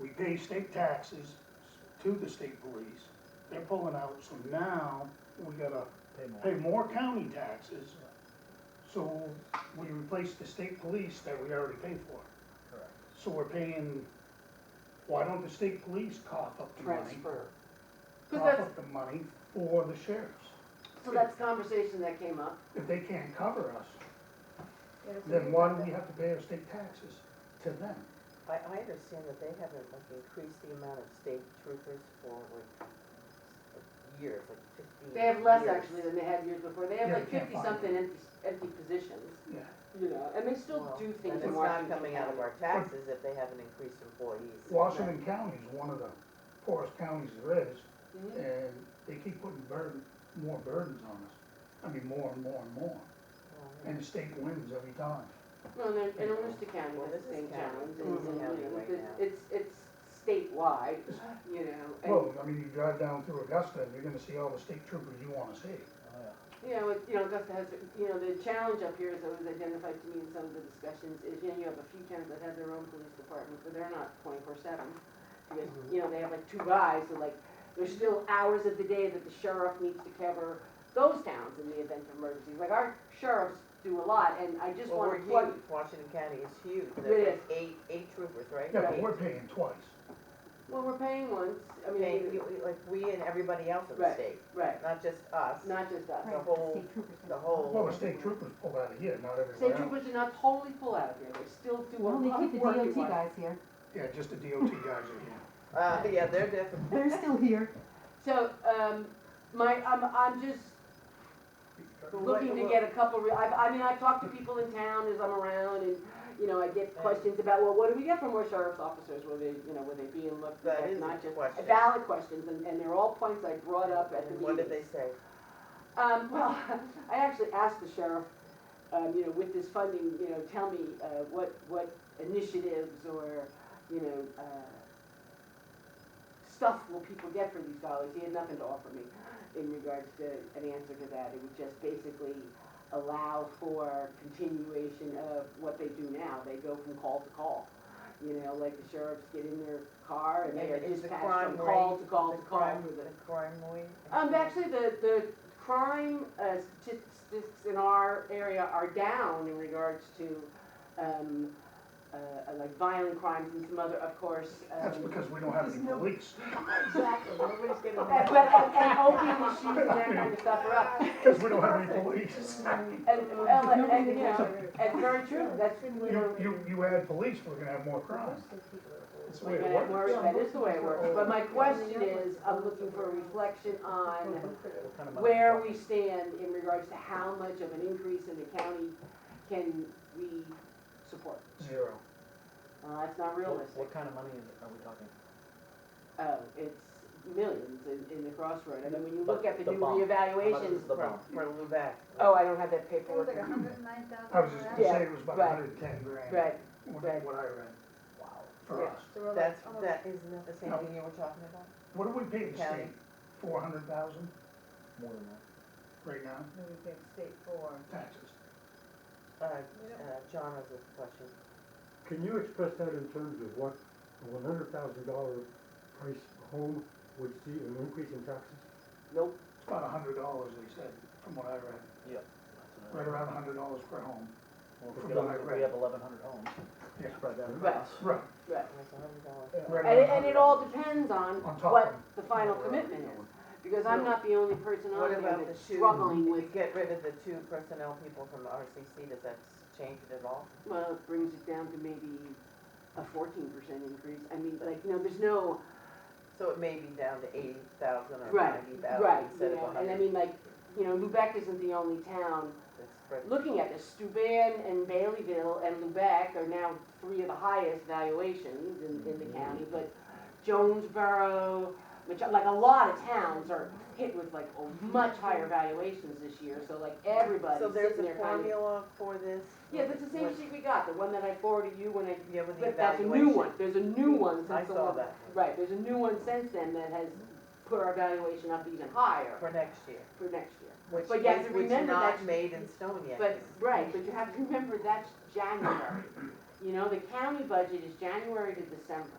we pay state taxes to the state police, they're pulling out, so now we gotta Pay more. pay more county taxes. So we replace the state police that we already pay for. Correct. So we're paying, why don't the state police cough up the money? transfer. But Cough up the money for the sheriffs. So that's a conversation that came up. If they can't cover us, then why do we have to pay our state taxes to them? I, I understand that they haven't like increased the amount of state troopers for like years, like fifteen years. They have less actually than they had years before. They have Yeah, like they can't fifty find something empty, empty positions, Yeah. you know, and they still Well, do things and in it's Washington. not coming out of our County. taxes if they haven't increased employees. Washington County is one of the poorest counties there is, Mhm. and they keep putting burden, more burdens on us. I mean, more and more and more, and the state wins every time. No, Mm-hmm. and then, and Aroostook County Well, has the this same is county. challenge, This and, is and, county you know, right it's- now. it's, it's statewide, you know, and, Well, I mean, you drive down through Augusta, and you're gonna see all the state troopers you wanna see. Oh, yeah. you know, it- you know, Augusta has, you know, the challenge up here, as it was identified to me in some of the discussions, is, you know, you have a few towns that have their own police department, but they're not twenty-four seven. Because, you know, they have like two guys, so like, there's still hours of the day that the sheriff needs to cover those towns in the event of emergencies. Like, our sheriffs do a lot, and I just Well, we're wanna huge, plug, Washington County is huge, It there's is. eight, eight troopers, right? Yeah, but Eight. we're paying twice. well, we're paying once, I mean, Paying- you- like, we and everybody else in the Right. state, right, not just us, not just us. the whole, the whole. Well, the state troopers pull out of here, not State everywhere else. troopers do not totally pull out of here, they still do a Well, lot they of keep the work. in DOT Washington. guys here, Yeah, just the DOT guys are here. Uh, yeah, they're different. they're still here. So, um, my, I'm, I'm just looking to get a couple, re- I, I mean, I talk to people in town as I'm around and, you know, I get questions about, well, what do we get from our sheriff's officers? Were they, you know, were they being looked That at, is a not just question. valid questions, and, and they're all points I brought up at the meeting. What did they say? Um, well, I actually asked the sheriff, um, you know, with this funding, you know, tell me, uh, what, what initiatives or, you know, uh, stuff will people get for these dollars? He had nothing to offer me in regards to an answer to that. It would just basically allow for continuation of what they do now. They go from call to call. You know, like the sheriffs get in their car and they are Is the dispatched crime from call rate- to call the to call. crime- for the- The crime rate? um, actually, the, the crime uh, statistics in our area are down in regards to, um, uh, uh, like violent crimes and some other, of course. That's um, because we don't have any police. Exactly. Nobody's getting. And- But, and, and opium issues and that kind of stuff are up. Because we don't have any police. And, well, and, and, you know, and very true, that's. You, you, you add police, we're gonna have more crime. That's the way it works. Where- That is the way it Oh. works. But my question is, I'm looking for a reflection on What kind of money where is we stand in regards to how much of an increase in the county can we support. Zero. Uh, it's not it? What- realistic. What kind of money is it, are we talking? Oh, it's millions in, in the crossroad. I mean, when you look at the The new bump. How much reevaluations. is the From, bump? from Lubec. Oh, I don't have that It was paperwork. like a hundred and nine thousand. I was just gonna say it was about Yeah, right. hundred and ten grand. Right, What, right. what I read Wow. for us. So we're like, That's, oh, that is the same No. thing you were talking about? What do we pay the County. state? Four hundred thousand More than that. right now, no, we get state four. taxes. Uh, uh, John has a question. Can you express that in terms of what a one hundred thousand dollar price home would see an increase in taxes? Nope. It's about a hundred dollars, they said, from what I read. That's what I- Right around a hundred dollars per home. Well, if from we what I have- if read. we have eleven hundred homes, Yeah. spread that Right. across. Right. Right. It's a hundred dollars. right And, it- around and $100. it all depends on On top what of the final what we're commitment is. doing. Because I'm not the only person on What there about the that's two? struggling If with, you get rid of the two personnel people from RCC, does that change it at all? well, it brings it down to maybe a fourteen percent increase. I mean, like, no, there's no, So it may be down to eighty thousand or Right, ninety right, thousand you instead of know, a and I hundred. mean, like, you know, Lubec isn't the only town That's spread- looking at this, Stuban and Baileyville and Lubec are now three of the highest valuations in, in the county, but Jonesboro, which, like, a lot of towns are hit with like a much higher valuations this year, so like everybody's So there's sitting a there kind of. formula for this? Yeah, that's the same With- sheet we got, the one that I forwarded you when I, Yeah, with the but that's a new one, evaluation. there's a new one I since the saw one. that Right, there's a new one since then that has put our valuation up even higher for next year, for next year. which But you have is, to which remember not that's- made in stone yet. But, right, but you have to remember that's January. You know, the county budget is January to December.